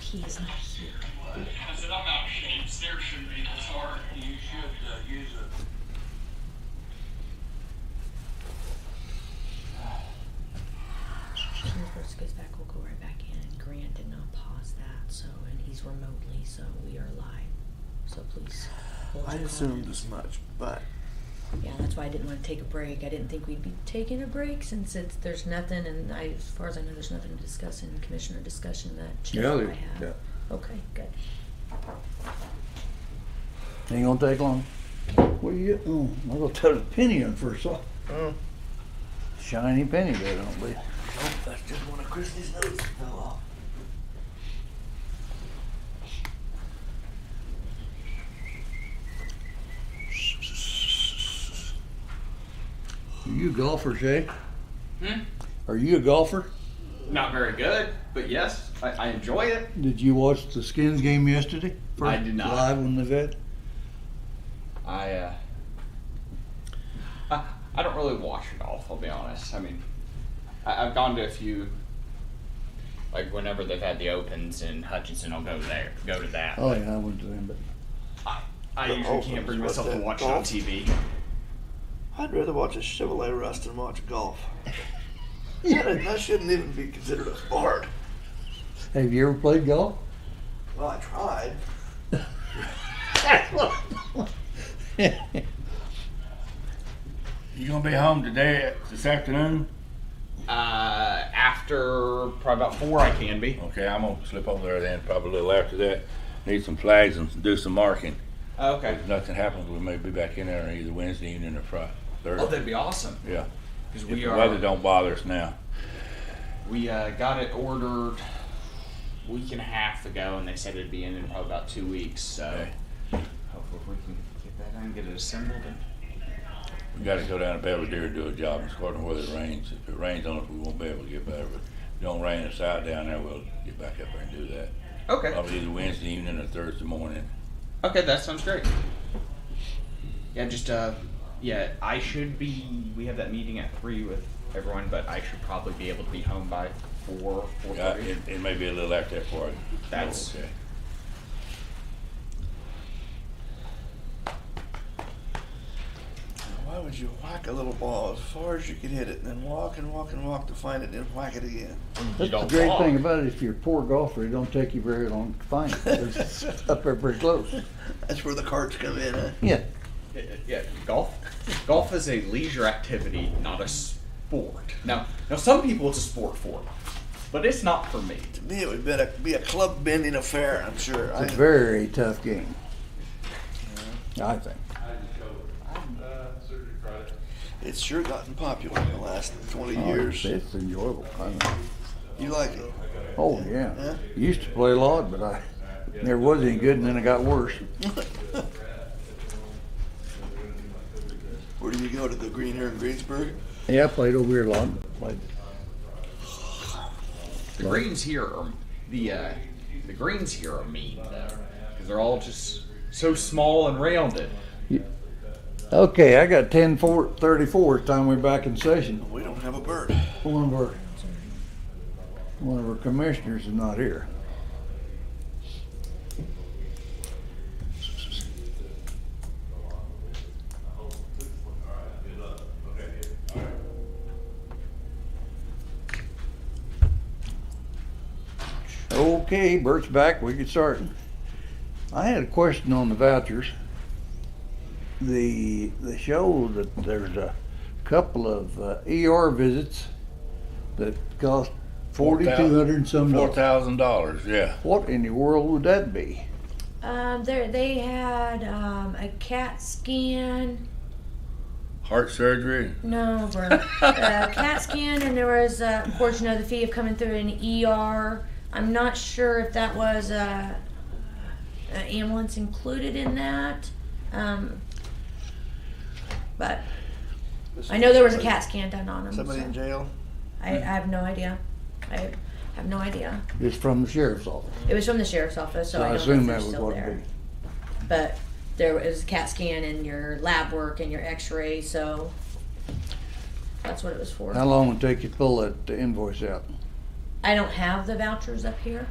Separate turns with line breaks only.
He is not here.
I said, I'm out of shape. There should be a guitar. You should uh, use it.
As soon as Bruce goes back, we'll go right back in. Grant did not pause that, so and he's remotely, so we are live. So please. hold
I
your
assumed
comments.
as much, but
Yeah, that's why I didn't want to take a break. I didn't think we'd be taking a break since it's there's nothing, and I, as far as I know, there's nothing to discuss in commissioner discussion that Chip
Yeah,
and I
there-
have.
yeah.
Okay, good.
Ain't gonna take long. What are you, oh, I'm gonna tell the penny in first off.
Mm.
Shiny penny there, don't be.
that's just one of Christie's notes fell off.
Are you a golfer, Jay?
Hmm?
Are you a golfer?
Not very good, but yes, I, I enjoy it.
Did you watch the Skins game yesterday?
I did not.
Live on the vet?
I, uh, I, I don't really watch it all. I'll be honest. I mean, I, I've gone to a few, like whenever they've had the opens in Hutchinson, I'll go there, go to that.
Oh, yeah, I went to them, but
I, I
The
usually
Opens,
can't bring
what's
myself to
that,
watch it on
golf?
TV.
I'd rather watch a Chevrolet rust than watch golf. That, that shouldn't even be considered a sport.
have you ever played golf?
Well, I tried.
You gonna be home today, this afternoon?
Uh, after probably about four, I can be.
Okay, I'm gonna slip over there then, probably a little after that. Need some flags and do some marking.
Oh, Okay.
If nothing happens, we may be back in there either Wednesday evening or Friday,
Oh,
Thursday.
that'd be awesome.
Yeah,
Because
if
we
the weather
are,
don't bother us now.
we uh, got it ordered a week and a half ago, and they said it'd be in in probably about two weeks. So
Okay.
hopefully we can get that done, get it assembled, and
We gotta go down to Belvedere and do a job, it's according to whether it rains. If it rains on us, we won't be able to get better, but if it don't rain inside down there, we'll get back up there and do that.
okay.
Probably either Wednesday evening or Thursday morning.
Okay, that sounds great. Yeah, just uh, yeah, I should be. We have that meeting at three with everyone, but I should probably be able to be home by four, four
Yeah,
thirty.
it, it may be a little after that for us.
That's-
Okay.
Why would you whack a little ball as far as you can hit it, and then walk and walk and walk to find it, and whack it again?
That's the great thing about it, if you're a poor golfer, it don't take you very long to find it. It's up there pretty close.
That's where the carts come in. Huh?
Yeah,
Yeah, yeah, golf. Golf is a leisure activity, not a sport. Now, now some people it's a sport for, but it's not for me.
To me, it would be a, be a club bending affair. I'm sure. I,
it's a very tough game. I think.
it's sure gotten popular in the last 20
Oh,
years.
It's enjoyable. I mean,
You like it?
Oh, yeah.
Yeah?
Used to play a lot, but I never was any good, and then it got worse.
Where do you go to the green here in Greensburg?
Yeah, I played over here a lot. Played.
The greens here are the uh, the greens here are mean though, because they're all just so small and rounded.
Okay, I got 10 four, 34 time we're back in session.
We don't have a bird.
One of our one of our commissioners is not here. Okay, Bert's back. We can start. I had a question on the vouchers. The the show that there's a couple of uh, ER visits that cost
Four
forty
thou-
two hundred and some
Four
dollars.
thousand dollars, yeah.
What in the world would that be?
Um, there they had um, a CAT scan.
Heart surgery,
No, Vern. uh, CAT scan, and there was, uh, of course, you know, the fee of coming through an ER. I'm not sure if that was uh, an ambulance included in that. Um, but I know there was a CAT scan done on him.
Somebody
so
in jail?
I, I have no idea. I have no idea.
It's from the sheriff's office.
It was from the sheriff's office, so,
So
I,
I
don't know if
assume that
they're
was
still
what
there.
it'd be.
But there was a CAT scan and your lab work and your X-ray, so that's what it was for.
How long would it take you to pull that invoice out?
I don't have the vouchers up here.